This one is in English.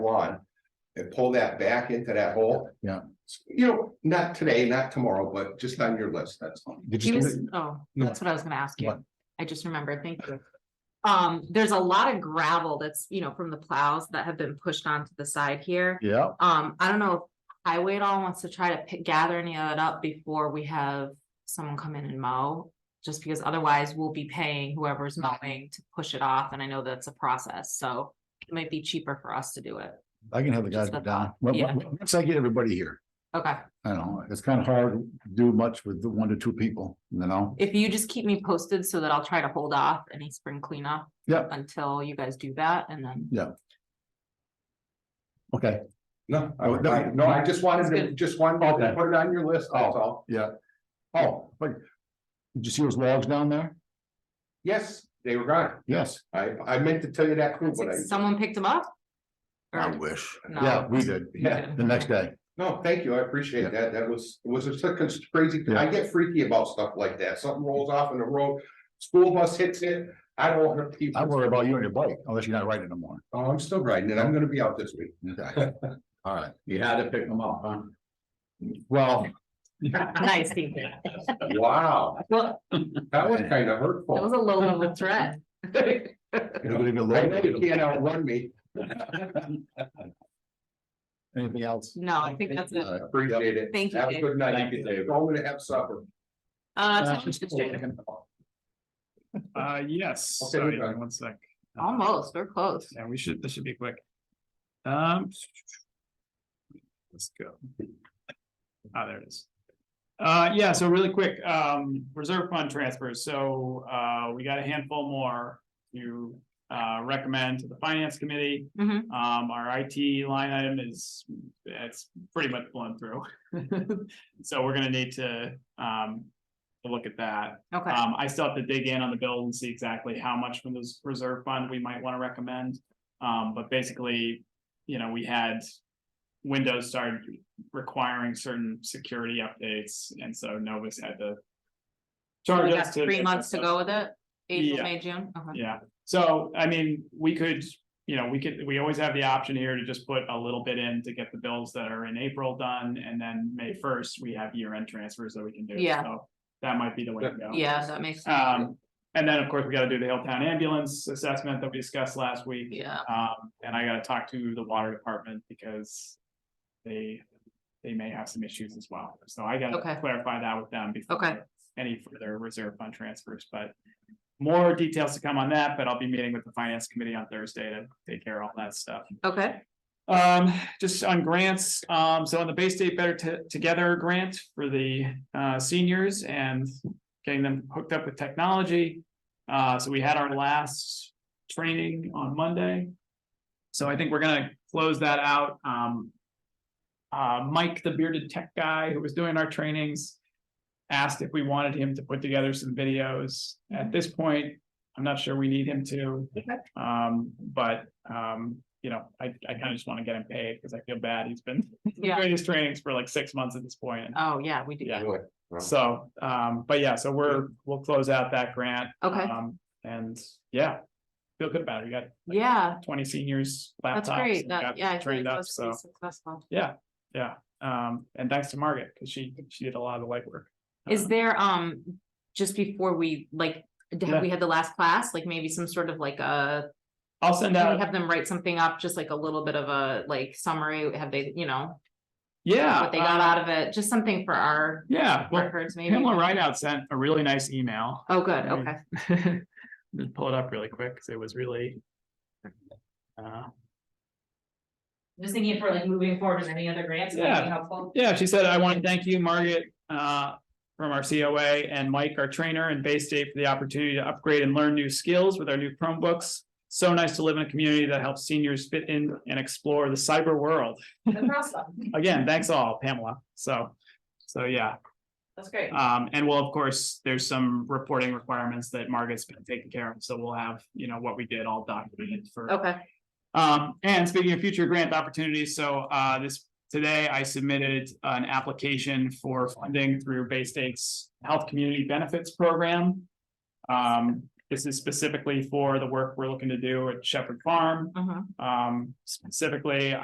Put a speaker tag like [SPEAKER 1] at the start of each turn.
[SPEAKER 1] lawn and pull that back into that hole.
[SPEAKER 2] Yeah.
[SPEAKER 1] You know, not today, not tomorrow, but just on your list, that's all.
[SPEAKER 2] Did
[SPEAKER 3] He
[SPEAKER 2] you,
[SPEAKER 3] was,
[SPEAKER 2] see
[SPEAKER 3] oh,
[SPEAKER 2] No.
[SPEAKER 3] that's what I was gonna ask
[SPEAKER 2] What?
[SPEAKER 3] you. I just remembered, thank you. Um, there's a lot of gravel that's, you know, from the plows that have been pushed onto the side here.
[SPEAKER 2] that? yeah,
[SPEAKER 3] Um, I don't know, if highway at all wants to try to pick, gather any of it up before we have someone come in and mow. Just because otherwise we'll be paying whoever's
[SPEAKER 2] Mm-hmm.
[SPEAKER 3] mowing to push it off, and I know that's a process, so it might be cheaper for us to do it.
[SPEAKER 2] I can have the guys
[SPEAKER 3] Just
[SPEAKER 2] go
[SPEAKER 3] a
[SPEAKER 2] down.
[SPEAKER 3] thought,
[SPEAKER 2] Well,
[SPEAKER 3] yeah.
[SPEAKER 2] well, Once I get everybody here,
[SPEAKER 3] Okay,
[SPEAKER 2] I know, it's kind of hard to do much with the one to two people, you know?
[SPEAKER 3] if you just keep me posted so that I'll try to hold off any spring cleanup.
[SPEAKER 2] Yeah.
[SPEAKER 3] Until you guys do that, and then.
[SPEAKER 2] Okay,
[SPEAKER 1] No, I would, I- no, I just wanted to, just wanted to
[SPEAKER 2] Okay.
[SPEAKER 1] put it on your list, that's all.
[SPEAKER 2] yeah. Oh, but did you see those logs down there?
[SPEAKER 1] Yes, they were gone.
[SPEAKER 2] Yes.
[SPEAKER 1] I, I meant to tell you that too, but I,
[SPEAKER 3] Someone picked them up? Or-
[SPEAKER 2] wish.
[SPEAKER 3] No.
[SPEAKER 2] Yeah, we did.
[SPEAKER 1] Yeah.
[SPEAKER 2] The next day.
[SPEAKER 1] no, thank you, I appreciate that, that was, it was such a crazy, I
[SPEAKER 2] Yeah.
[SPEAKER 1] get freaky about stuff like that, something rolls off in the road, school bus hits it, I don't want to keep.
[SPEAKER 2] I worry about you and your bike unless you're not riding no more.
[SPEAKER 1] Oh, I'm still riding it, I'm gonna be out this week.
[SPEAKER 2] Okay. All right.
[SPEAKER 4] You had to pick them up, huh?
[SPEAKER 2] Well,
[SPEAKER 3] Nice, thank you. That
[SPEAKER 1] Wow,
[SPEAKER 3] Well-
[SPEAKER 1] that was kind of hurtful.
[SPEAKER 3] was a low level threat.
[SPEAKER 2] you're gonna be a
[SPEAKER 1] I know you
[SPEAKER 2] little-
[SPEAKER 1] can't outrun me.
[SPEAKER 2] anything else?
[SPEAKER 3] No, I think that's it.
[SPEAKER 2] All right.
[SPEAKER 1] Appreciate it.
[SPEAKER 3] Thank you,
[SPEAKER 1] Have a
[SPEAKER 3] Dave.
[SPEAKER 1] good night.
[SPEAKER 4] Thank you, Dave.
[SPEAKER 1] Go home and have supper.
[SPEAKER 3] Uh, so it's just Jada.
[SPEAKER 5] Uh, yes,
[SPEAKER 1] Okay,
[SPEAKER 5] sorry,
[SPEAKER 1] we're done.
[SPEAKER 5] one sec.
[SPEAKER 3] Almost, we're close.
[SPEAKER 5] Yeah, we should, this should be quick. Um. Let's go. Ah, there it is. Uh, yeah, so really quick, um, reserve fund transfers, so, uh, we got a handful more to, uh, recommend to the finance committee.
[SPEAKER 3] Mhm.
[SPEAKER 5] Um, our IT line item is, it's pretty much blown through. So we're gonna need to, um, to look at that.
[SPEAKER 3] Okay,
[SPEAKER 5] Um, I still have to dig in on the bill and see exactly how much from this reserve fund we might want to recommend. Um, but basically, you know, we had. Windows started requiring certain security updates, and so Novus had to.
[SPEAKER 3] we
[SPEAKER 5] Charge
[SPEAKER 3] got
[SPEAKER 5] us to.
[SPEAKER 3] three months to go with it. April,
[SPEAKER 5] Yeah.
[SPEAKER 3] May, June. Okay.
[SPEAKER 5] Yeah, so I mean, we could, you know, we could, we always have the option here to just put a little bit in to get the bills that are in April done, and then May first, we have year-end transfers that we can do.
[SPEAKER 3] Yeah.
[SPEAKER 5] So That might be the way to go.
[SPEAKER 3] Yeah, that makes, sense.
[SPEAKER 5] Um, and then, of course, we gotta do the Hilltown ambulance assessment that we discussed last week.
[SPEAKER 3] yeah,
[SPEAKER 5] Um, and I gotta talk to the water department because they, they may have some issues as well. So I
[SPEAKER 3] Okay.
[SPEAKER 5] gotta clarify that with them
[SPEAKER 3] Okay.
[SPEAKER 5] before any further reserve fund transfers, but more details to come on that, but I'll be meeting with the finance committee on Thursday to take care of all that stuff.
[SPEAKER 3] okay,
[SPEAKER 5] Um, just on grants, um, so on the Bay State Better T- Together grant for the uh seniors and getting them hooked up with technology. Uh, so we had our last training on Monday. So I think we're gonna close that out. Um. Uh, Mike, the bearded tech guy who was doing our trainings. Asked if we wanted him to put together some videos. At this point, I'm not sure we need him to. Um, but, um, you know, I, I kind of just want to get him paid because I feel bad. He's been
[SPEAKER 3] yeah.
[SPEAKER 5] doing his trainings for like six months at this point.
[SPEAKER 3] Oh, yeah, we do.
[SPEAKER 5] Yeah.
[SPEAKER 1] Anyway,
[SPEAKER 5] So, um, but yeah, so we're, we'll close out that grant.
[SPEAKER 3] Okay.
[SPEAKER 5] Um, And yeah, feel good about it. We got like,
[SPEAKER 3] Yeah,
[SPEAKER 5] twenty seniors
[SPEAKER 3] that's
[SPEAKER 5] laptops.
[SPEAKER 3] great.
[SPEAKER 5] and
[SPEAKER 3] That,
[SPEAKER 5] got
[SPEAKER 3] yeah. I feel
[SPEAKER 5] Trained
[SPEAKER 3] like
[SPEAKER 5] up,
[SPEAKER 3] that's pretty
[SPEAKER 5] so,
[SPEAKER 3] successful.
[SPEAKER 5] yeah. Um, and thanks to Margaret because she, she did a lot of the legwork.
[SPEAKER 3] Is
[SPEAKER 5] Um,
[SPEAKER 3] there, um, just before we, like, d-
[SPEAKER 5] Yeah.
[SPEAKER 3] have we had the last class, like maybe some sort of like a
[SPEAKER 5] I'll send
[SPEAKER 3] Can we
[SPEAKER 5] out,
[SPEAKER 3] have them write something up, just like a little bit of a like summary, have they, you know,
[SPEAKER 5] yeah.
[SPEAKER 3] what they got
[SPEAKER 5] uh,
[SPEAKER 3] out of it, just something for our
[SPEAKER 5] Yeah, well,
[SPEAKER 3] records maybe?
[SPEAKER 5] Pamela Rideout sent a really nice email.
[SPEAKER 3] Oh, good,
[SPEAKER 5] I mean,
[SPEAKER 3] okay,
[SPEAKER 5] Just pull it up really quick, because it was really. Uh,
[SPEAKER 3] just thinking for like moving forward with any other grants,
[SPEAKER 5] that might be
[SPEAKER 3] helpful.
[SPEAKER 5] yeah, she said, I want to thank you, Margaret, uh, from our COA and Mike, our trainer and Bay State for the opportunity to upgrade and learn new skills with our new Chromebooks. So nice to live in a community that helps seniors fit in and explore the cyber world.
[SPEAKER 3] That's awesome,
[SPEAKER 5] Again, thanks all, Pamela. So, so yeah.
[SPEAKER 3] that's great.
[SPEAKER 5] Um, and well, of course, there's some reporting requirements that Margaret's been taking care of. So we'll have, you know, what we did all documented for
[SPEAKER 3] Okay,
[SPEAKER 5] Um, and speaking of future grant opportunities, so, uh, this, today I submitted an application for funding through Bay State's Health Community Benefits Program. Um, This is specifically for the work we're looking to do at Shepherd Farm.
[SPEAKER 3] Mhm.
[SPEAKER 5] Um, specifically,